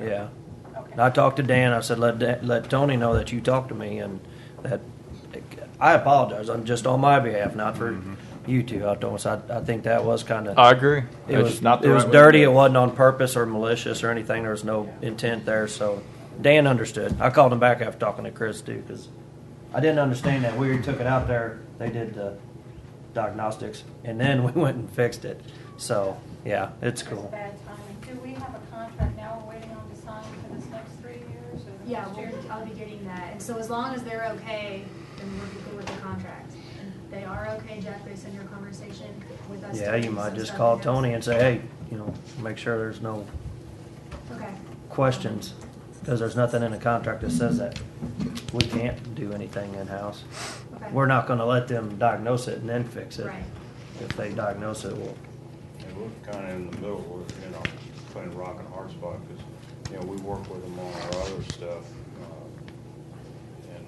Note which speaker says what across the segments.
Speaker 1: Yeah.
Speaker 2: Okay.
Speaker 1: And I talked to Dan. I said, let, Da- let Tony know that you talked to me and that I apologize. I'm just on my behalf, not for you two. I don't, I, I think that was kind of,
Speaker 3: Mm-hmm. I agree.
Speaker 1: it
Speaker 3: It's
Speaker 1: was,
Speaker 3: not the
Speaker 1: it
Speaker 3: right
Speaker 1: was
Speaker 3: way to
Speaker 1: dirty.
Speaker 3: do
Speaker 1: It wasn't on purpose or malicious or anything. There was no intent there. So Dan understood. I called him back after talking to Chris too, because I didn't understand that. We took it out there. They did the diagnostics and then we went and fixed it. So yeah, it's
Speaker 2: That's
Speaker 1: cool.
Speaker 2: bad timing. Do we have a contract now we're waiting on to sign for this next three years or the
Speaker 4: Yeah,
Speaker 2: next year?
Speaker 4: we'll, I'll be getting that. And so as long as they're okay, then we're good with the contract. And They are okay, Jeff, based on your conversation with us.
Speaker 1: Yeah,
Speaker 4: doing
Speaker 1: you might
Speaker 4: some
Speaker 1: just
Speaker 4: stuff
Speaker 1: call
Speaker 4: in-house.
Speaker 1: Tony and say, hey, you know, make sure there's no
Speaker 4: Okay,
Speaker 1: questions, because there's nothing in the contract that says that. We can't do anything in-house.
Speaker 4: okay.
Speaker 1: We're not gonna let them diagnose it and then fix it.
Speaker 4: Right.
Speaker 1: If they diagnose it, well,
Speaker 5: And we're kind of in the middle, we're, you know, playing rock and hard spot, because, you know, we work with them on our other stuff. uh, And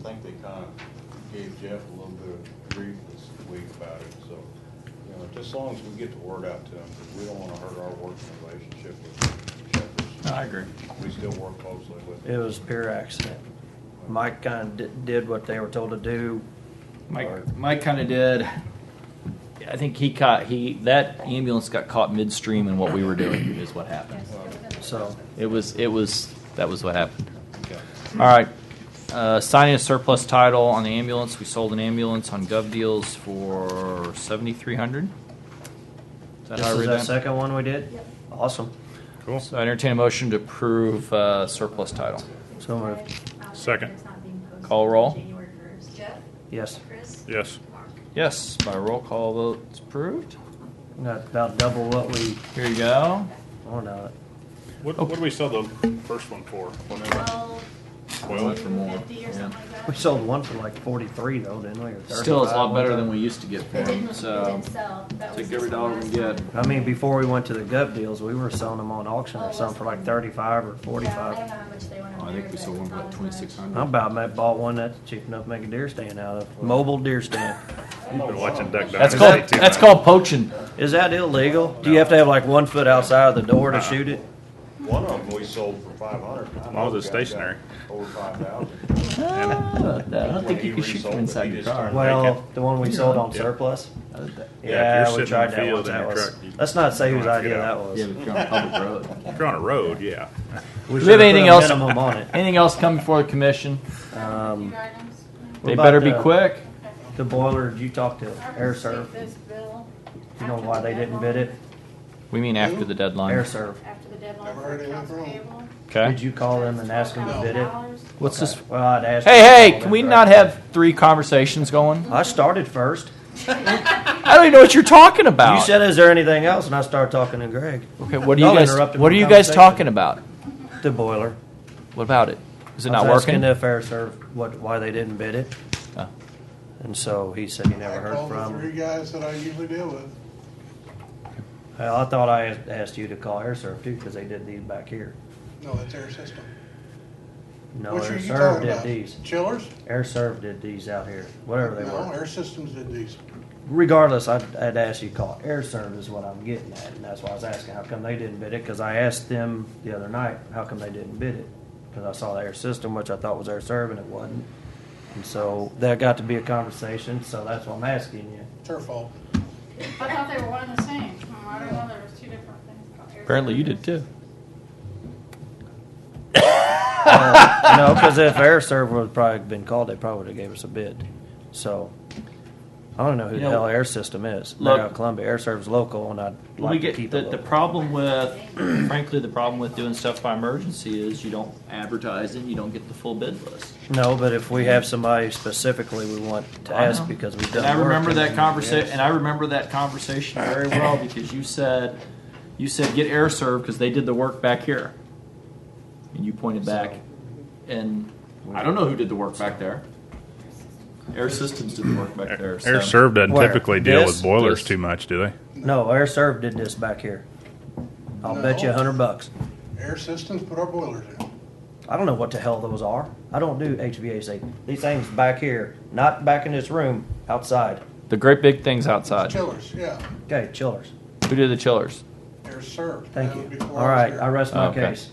Speaker 5: I think they kind of gave Jeff a little bit of grief this week about it, so, you know, just as long as we get the word out to them, 'cause we don't want to hurt our working relationship with
Speaker 3: it.
Speaker 5: Shepherd's.
Speaker 3: I agree.
Speaker 5: We still work closely with
Speaker 1: it
Speaker 5: them.
Speaker 1: was pure accident. Mike kinda di- did what they were told to do. or-
Speaker 3: Mike, Mike kind of did. I think he caught he that ambulance got caught midstream in what we were doing is what happened.
Speaker 2: Yes, it was in the
Speaker 1: So,
Speaker 3: It was it was that was what happened.
Speaker 5: Okay.
Speaker 3: All right. Uh, signing a surplus title on the ambulance. We sold an ambulance on Gov Deals for seventy three hundred. Is that
Speaker 1: this
Speaker 3: how I
Speaker 1: is
Speaker 3: read
Speaker 1: that
Speaker 3: that?
Speaker 1: second one we did?
Speaker 4: Yep.
Speaker 1: Awesome.
Speaker 6: Cool.
Speaker 3: So I entertain a motion to approve uh, surplus title.
Speaker 4: It's
Speaker 1: So moved.
Speaker 4: today, out there,
Speaker 6: Second.
Speaker 4: it's not being posted
Speaker 3: Call roll.
Speaker 4: January first.
Speaker 7: Jeff,
Speaker 1: Yes.
Speaker 7: Chris,
Speaker 6: Yes.
Speaker 7: Mark.
Speaker 3: Yes, by roll call vote, it's approved.
Speaker 1: Got about double what we,
Speaker 3: Here you go.
Speaker 1: oh no,
Speaker 6: What, what did we sell the first one for? Whatever.
Speaker 4: Twelve,
Speaker 6: Well,
Speaker 3: for more,
Speaker 4: fifty or
Speaker 3: yeah.
Speaker 4: something like that.
Speaker 1: we sold one for like forty-three though, didn't we? or
Speaker 3: Still, it's a
Speaker 1: 35
Speaker 3: lot
Speaker 1: one
Speaker 3: better
Speaker 1: time?
Speaker 3: than we used to get for
Speaker 4: It didn't,
Speaker 3: them. Um,
Speaker 4: it
Speaker 3: So
Speaker 4: didn't sell. That was
Speaker 3: take every
Speaker 4: just the
Speaker 3: dollar we
Speaker 4: last
Speaker 3: can
Speaker 4: time.
Speaker 3: get.
Speaker 1: I mean, before we went to the gov deals, we were selling them on auction
Speaker 4: Oh,
Speaker 1: or
Speaker 4: was
Speaker 1: something for
Speaker 4: it?
Speaker 1: like thirty-five or
Speaker 4: Yeah, I don't
Speaker 1: forty-five.
Speaker 4: know how much they went
Speaker 3: Oh,
Speaker 4: on
Speaker 3: I
Speaker 4: there,
Speaker 3: think we
Speaker 4: but
Speaker 3: sold one for
Speaker 4: not
Speaker 3: like
Speaker 4: as
Speaker 3: twenty-six
Speaker 4: much.
Speaker 1: I
Speaker 3: hundred.
Speaker 1: about ma- bought one that's cheap enough to make a deer stand out of, mobile deer stand.
Speaker 6: Been watching Duck
Speaker 3: That's
Speaker 6: Dynasty
Speaker 3: called,
Speaker 6: too
Speaker 3: that's
Speaker 6: much.
Speaker 3: called poaching.
Speaker 1: Is that illegal? Do you have to have like one foot outside of the door to shoot it?
Speaker 5: One of them we sold for five hundred.
Speaker 6: As long as it's stationary.
Speaker 5: Over five thousand.
Speaker 3: Ah, I don't know. I don't think
Speaker 5: When
Speaker 3: you can
Speaker 5: he
Speaker 3: shoot
Speaker 5: resold
Speaker 3: from
Speaker 5: it,
Speaker 3: inside
Speaker 5: he
Speaker 3: your
Speaker 5: just
Speaker 3: car.
Speaker 5: turned-
Speaker 1: Well,
Speaker 6: Naked.
Speaker 1: the one we sold on
Speaker 6: Yeah.
Speaker 1: surplus?
Speaker 3: I don't think-
Speaker 6: Yeah, if
Speaker 1: Yeah,
Speaker 6: you're
Speaker 1: we
Speaker 6: sitting in
Speaker 1: tried
Speaker 6: the
Speaker 1: that
Speaker 6: field
Speaker 1: once.
Speaker 6: in
Speaker 1: That
Speaker 6: your
Speaker 1: was,
Speaker 6: truck, you-
Speaker 1: let's not say whose
Speaker 6: you don't
Speaker 1: idea
Speaker 6: get
Speaker 1: that
Speaker 6: out.
Speaker 1: was.
Speaker 3: Yeah, but if you're on a public road.
Speaker 6: If you're on a road, yeah.
Speaker 3: Do
Speaker 1: We should
Speaker 3: we have
Speaker 1: have put a
Speaker 3: anything else?
Speaker 1: minimum on it.
Speaker 3: Anything else come before the commission?
Speaker 2: Few
Speaker 1: Um,
Speaker 2: items.
Speaker 1: What
Speaker 3: They
Speaker 1: about
Speaker 3: better be
Speaker 1: the-
Speaker 3: quick.
Speaker 1: the boiler, did you talk to
Speaker 2: I
Speaker 1: Air
Speaker 2: received
Speaker 1: Serv?
Speaker 2: this bill.
Speaker 1: You know
Speaker 2: after
Speaker 1: why
Speaker 2: the
Speaker 1: they didn't
Speaker 2: deadline-
Speaker 1: bid it?
Speaker 3: We mean after the
Speaker 1: Air
Speaker 3: deadline.
Speaker 1: Serv.
Speaker 2: After the deadline
Speaker 5: Never
Speaker 2: for
Speaker 5: heard anything
Speaker 2: accounts
Speaker 5: from 'em.
Speaker 2: payable.
Speaker 3: Okay.
Speaker 1: Did you call them and ask them to bid it?
Speaker 2: $12,000.
Speaker 3: What's this?
Speaker 1: Okay. Well, I'd ask. them to
Speaker 3: Hey, hey,
Speaker 1: call
Speaker 3: can
Speaker 1: them
Speaker 3: we
Speaker 1: first.
Speaker 3: not have three conversations going?
Speaker 1: I started first.
Speaker 3: I don't even know what you're talking about.
Speaker 1: You said, "Is there anything else?" And I started talking to Greg.
Speaker 3: Okay, what are you
Speaker 1: Y'all
Speaker 3: guys,
Speaker 1: interrupted
Speaker 3: what are
Speaker 1: my
Speaker 3: you guys
Speaker 1: conversation.
Speaker 3: talking about?
Speaker 1: The boiler.
Speaker 3: What about it? Is it not
Speaker 1: I was
Speaker 3: working?
Speaker 1: Asking the fair serv what why they didn't bid it,
Speaker 3: Oh.
Speaker 1: and so he said he never heard
Speaker 8: I called the three
Speaker 1: from.
Speaker 8: guys that I usually deal with.
Speaker 1: Hell, I thought I asked- asked you to call air serv too because they did these back here.
Speaker 8: No, that's their system.
Speaker 1: No,
Speaker 8: Which are
Speaker 1: air
Speaker 8: you
Speaker 1: serv
Speaker 8: talking
Speaker 1: did
Speaker 8: about?
Speaker 1: these.
Speaker 8: Chillers?
Speaker 1: Air serv did these out here. Whatever they
Speaker 8: No,
Speaker 1: were.
Speaker 8: Air Systems did these.
Speaker 1: Regardless, I'd, I'd ask you to call air serv is what I'm getting at, and that's why I was asking how come they didn't bid it because I asked them the other night how come they didn't bid it because I saw the air system which I thought was air serv and it wasn't. And so that got to be a conversation, so that's why I'm asking you.
Speaker 8: It's their fault.
Speaker 2: I thought they were one and the same. Hmm, I don't know, there was two different things. called Air
Speaker 3: Apparently you did
Speaker 2: Serv.
Speaker 3: too.
Speaker 1: you know, because if air serv would have probably been called, they probably would have gave us a bid. So I don't know who
Speaker 3: You
Speaker 1: the
Speaker 3: know,
Speaker 1: hell air system is. They're
Speaker 3: look-
Speaker 1: out of Columbia. Air serv's local, and I'd like
Speaker 3: we
Speaker 1: to
Speaker 3: get
Speaker 1: keep
Speaker 3: the,
Speaker 1: it
Speaker 3: the
Speaker 1: local.
Speaker 3: problem with, frankly, the problem with doing stuff by emergency is you don't advertise it, you don't get the full bid list.
Speaker 1: no, but if we have somebody specifically we want to
Speaker 3: I
Speaker 1: ask
Speaker 3: know.
Speaker 1: because we've done.
Speaker 3: And I
Speaker 1: work
Speaker 3: remember
Speaker 1: and
Speaker 3: that
Speaker 1: then-
Speaker 3: conversation,
Speaker 1: yes.
Speaker 3: and I remember that conversation very well because you said, you said get air serve because they did the work back here, and you pointed back, and I don't know who did the work back there. Air Systems did the work back there. so-
Speaker 6: Air Serv doesn't
Speaker 1: Where?
Speaker 6: typically deal
Speaker 3: This?
Speaker 6: with boilers
Speaker 3: This?
Speaker 6: too much, do they?
Speaker 1: no air serv did this back here. I'll bet you a
Speaker 8: No.
Speaker 1: hundred bucks.
Speaker 8: Air Systems put our boilers in.
Speaker 1: I don't know what the hell those are. I don't do HVAC. These things back here, not back in this room, outside.
Speaker 3: The great big things outside.
Speaker 8: Chillers, yeah.
Speaker 1: Okay, chillers.
Speaker 3: Who did the chillers?
Speaker 8: Air Serv.
Speaker 1: Thank
Speaker 8: That
Speaker 1: you.
Speaker 8: was before I
Speaker 1: All
Speaker 8: was
Speaker 1: right,
Speaker 8: here.
Speaker 1: I rest my
Speaker 3: Okay.
Speaker 1: case.